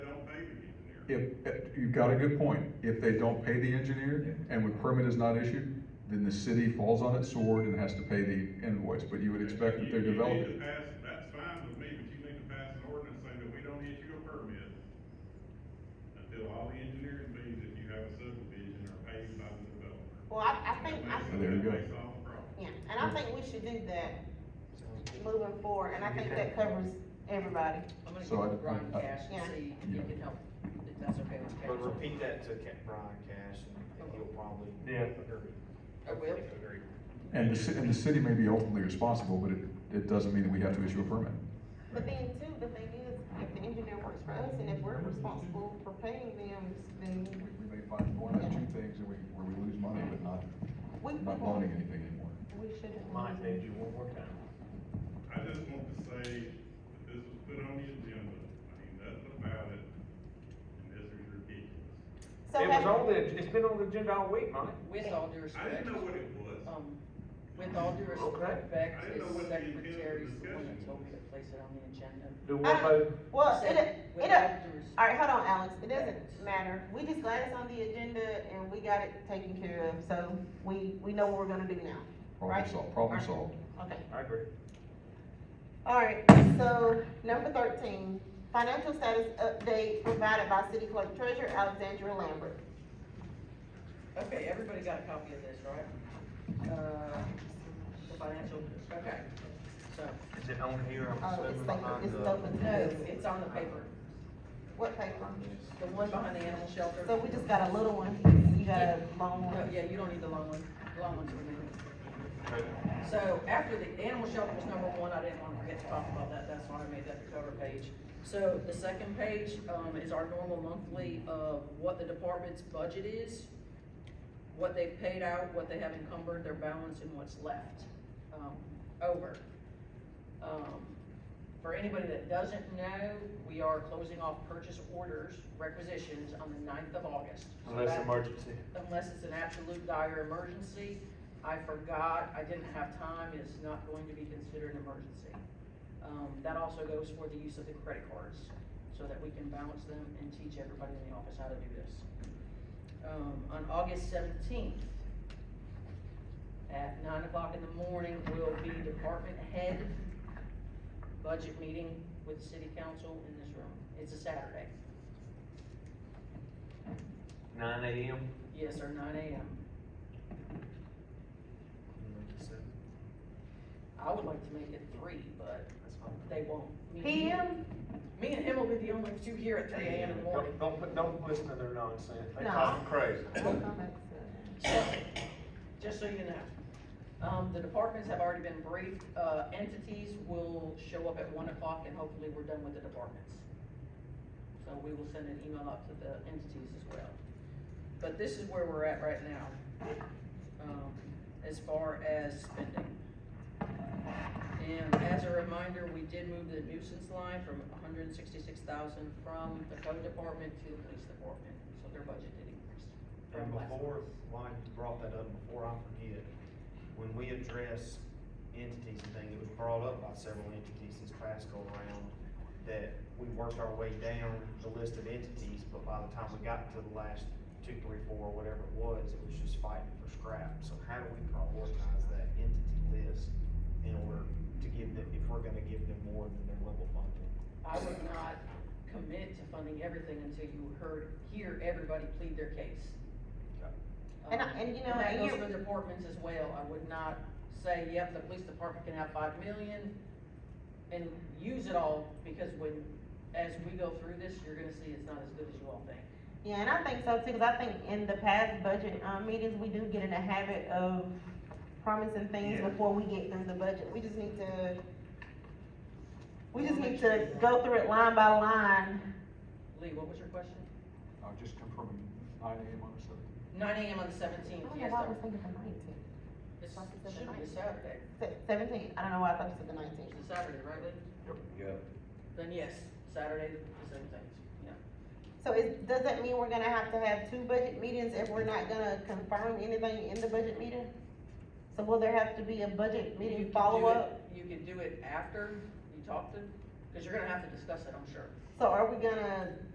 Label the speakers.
Speaker 1: if, if- you've got a good point, if they don't pay the engineer and when permit is not issued, then the city falls on its sword and has to pay the invoice, but you would expect that they're
Speaker 2: You- you need to
Speaker 1: developing.
Speaker 2: pass- That's fine with me, but you need to pass an ordinance saying that we don't issue a permit until all the engineering fees that you have a subdivision are paid by the developer.
Speaker 3: Well, I, I think, I,
Speaker 2: That
Speaker 1: There you
Speaker 2: makes-
Speaker 1: go.
Speaker 2: That makes all the problem.
Speaker 3: yeah, and I think we should do that moving forward, and I think that covers everybody.
Speaker 4: I'm gonna
Speaker 1: So
Speaker 4: go
Speaker 1: I-
Speaker 4: with Brian
Speaker 1: I-
Speaker 4: Cash
Speaker 3: Yeah.
Speaker 4: and see if
Speaker 1: Yeah.
Speaker 4: he can help, if that's okay with
Speaker 5: But
Speaker 4: council.
Speaker 5: repeat that to Ca- Brian Cash, and he'll probably
Speaker 6: Yeah.
Speaker 5: agree.
Speaker 4: I will.
Speaker 5: Agree.
Speaker 1: And the, ci- and the city may be ultimately responsible, but it, it doesn't mean that we have to issue a permit.
Speaker 3: But then too, the thing is, if the engineer works for us, and if we're responsible for paying them, then
Speaker 1: We, we may find one or two things that we, where we lose money, but not,
Speaker 3: we,
Speaker 1: not
Speaker 3: we,
Speaker 1: loaning anything anymore.
Speaker 3: we shouldn't.
Speaker 5: Mike made you one more time.
Speaker 2: I just want to say that this was put on the agenda, I mean, nothing about it, and this is ridiculous.
Speaker 3: So
Speaker 5: It was
Speaker 3: have-
Speaker 5: on the, it's been on the agenda all week, Mike.
Speaker 4: With all
Speaker 2: I
Speaker 4: due
Speaker 2: didn't
Speaker 4: respect,
Speaker 2: know what it was.
Speaker 4: um, with all due respect,
Speaker 2: I didn't know
Speaker 4: his
Speaker 2: what the intent of the
Speaker 4: secretary's the one that
Speaker 2: discussion
Speaker 4: told me
Speaker 2: was.
Speaker 4: to place it on the agenda.
Speaker 5: Do
Speaker 3: I
Speaker 5: what,
Speaker 3: don't-
Speaker 5: vote?
Speaker 3: Well, it,
Speaker 4: Said
Speaker 3: it,
Speaker 4: with
Speaker 3: it-
Speaker 4: all due respect.
Speaker 3: Alright, hold on, Alex, it doesn't matter, we just glad it's on the agenda and we got it taken care of, so we, we know what we're gonna do now,
Speaker 1: Problem
Speaker 3: Right.
Speaker 1: solved, problem
Speaker 3: Right.
Speaker 1: solved.
Speaker 3: okay?
Speaker 5: I agree.
Speaker 3: Alright, so, number thirteen, financial status update provided by city clerk treasurer Alexandra Lambert.
Speaker 4: Okay, everybody got a copy of this, right? Uh, the financial, okay, so,
Speaker 5: Is it on here? I'm
Speaker 4: Oh,
Speaker 3: Uh,
Speaker 5: assuming
Speaker 3: it's like,
Speaker 5: behind
Speaker 3: it's
Speaker 5: the-
Speaker 3: open to
Speaker 4: no,
Speaker 3: this,
Speaker 4: it's on the paper,
Speaker 3: what paper?
Speaker 5: behind this.
Speaker 4: the one behind the animal shelter.
Speaker 3: So we just got a little one, you got a long
Speaker 4: No,
Speaker 3: one.
Speaker 4: yeah, you don't need the long one, the long one's for me.
Speaker 5: Okay.
Speaker 4: So after the animal shelter was number one, I didn't wanna forget to talk about that, that's why I made that the cover page. So the second page, um, is our normal monthly of what the department's budget is, what they've paid out, what they have encumbered, their balance, and what's left, um, over. Um, for anybody that doesn't know, we are closing off purchase orders, requisitions on the 9th of August. So
Speaker 6: Unless
Speaker 4: that-
Speaker 6: emergency.
Speaker 4: unless it's an absolute dire emergency. I forgot, I didn't have time, it's not going to be considered an emergency. Um, that also goes for the use of the credit cards, so that we can balance them and teach everybody in the office how to do this. Um, on August seventeenth, at nine o'clock in the morning, will be department head budget meeting with city council in this room. It's a Saturday.
Speaker 5: Nine AM?
Speaker 4: Yes, or nine AM.
Speaker 5: Mm-hmm.
Speaker 4: I would like to make it three, but
Speaker 5: That's fine.
Speaker 4: they won't. Me and him-
Speaker 3: PM?
Speaker 4: Me and him will be the only two here at three AM in the morning.
Speaker 5: Don't, don't, put- don't listen to their nonsense. They
Speaker 3: No.
Speaker 5: talking crazy.
Speaker 3: We'll come back to that.
Speaker 4: So, just so you know, um, the departments have already been briefed, uh, entities will show up at one o'clock and hopefully we're done with the departments. So we will send an email out to the entities as well. But this is where we're at right now, um, as far as spending. And as a reminder, we did move the nuisance line from hundred and sixty-six thousand from the code department to the police department, so their budget did increase. from
Speaker 5: And
Speaker 4: last month.
Speaker 5: before, why you brought that up, before I forget, when we address entities and things, it was brought up by several entities since past go around, that we worked our way down the list of entities, but by the time we got to the last two, three, four, or whatever it was, it was just fighting for scrap. So how do we prioritize that entity list in order to give them, if we're gonna give them more than their level funding?
Speaker 4: I would not commit to funding everything until you heard, hear everybody plead their case.
Speaker 3: And I-
Speaker 4: Um,
Speaker 3: and you know,
Speaker 4: That
Speaker 3: and
Speaker 4: goes
Speaker 3: you-
Speaker 4: for departments as well, I would not say, yep, the police department can have five million and use it all, because when, as we go through this, you're gonna see it's not as good as you all think.
Speaker 3: Yeah, and I think so too, because I think in the past budget, um, meetings, we do get in the habit of promising things
Speaker 5: Yeah.
Speaker 3: before we get through the budget, we just need to, we just need to go through it line by line.
Speaker 4: Lee, what was your question?
Speaker 1: I'll just confirm nine AM on the seventeenth.
Speaker 4: Nine AM on the
Speaker 3: I
Speaker 4: seventeenth,
Speaker 3: don't know
Speaker 4: yes,
Speaker 3: why I
Speaker 4: sir.
Speaker 3: was thinking the nineteenth,
Speaker 4: It's-
Speaker 3: Like it's
Speaker 4: Should be a
Speaker 3: the
Speaker 4: Saturday,
Speaker 3: seventeen, I don't know why I thought you said the nineteenth.
Speaker 4: it's a Saturday, right, Lee?
Speaker 6: Yeah.
Speaker 4: Then yes, Saturday, the seventeenth, yeah.
Speaker 3: So is, does that mean we're gonna have to have two budget meetings if we're not gonna confirm anything in the budget meeting? So will there have to be a budget
Speaker 4: You
Speaker 3: meeting
Speaker 4: can do
Speaker 3: follow-up?
Speaker 4: it- You can do it after you talk to, because you're gonna have to discuss it, I'm sure.
Speaker 3: So are we gonna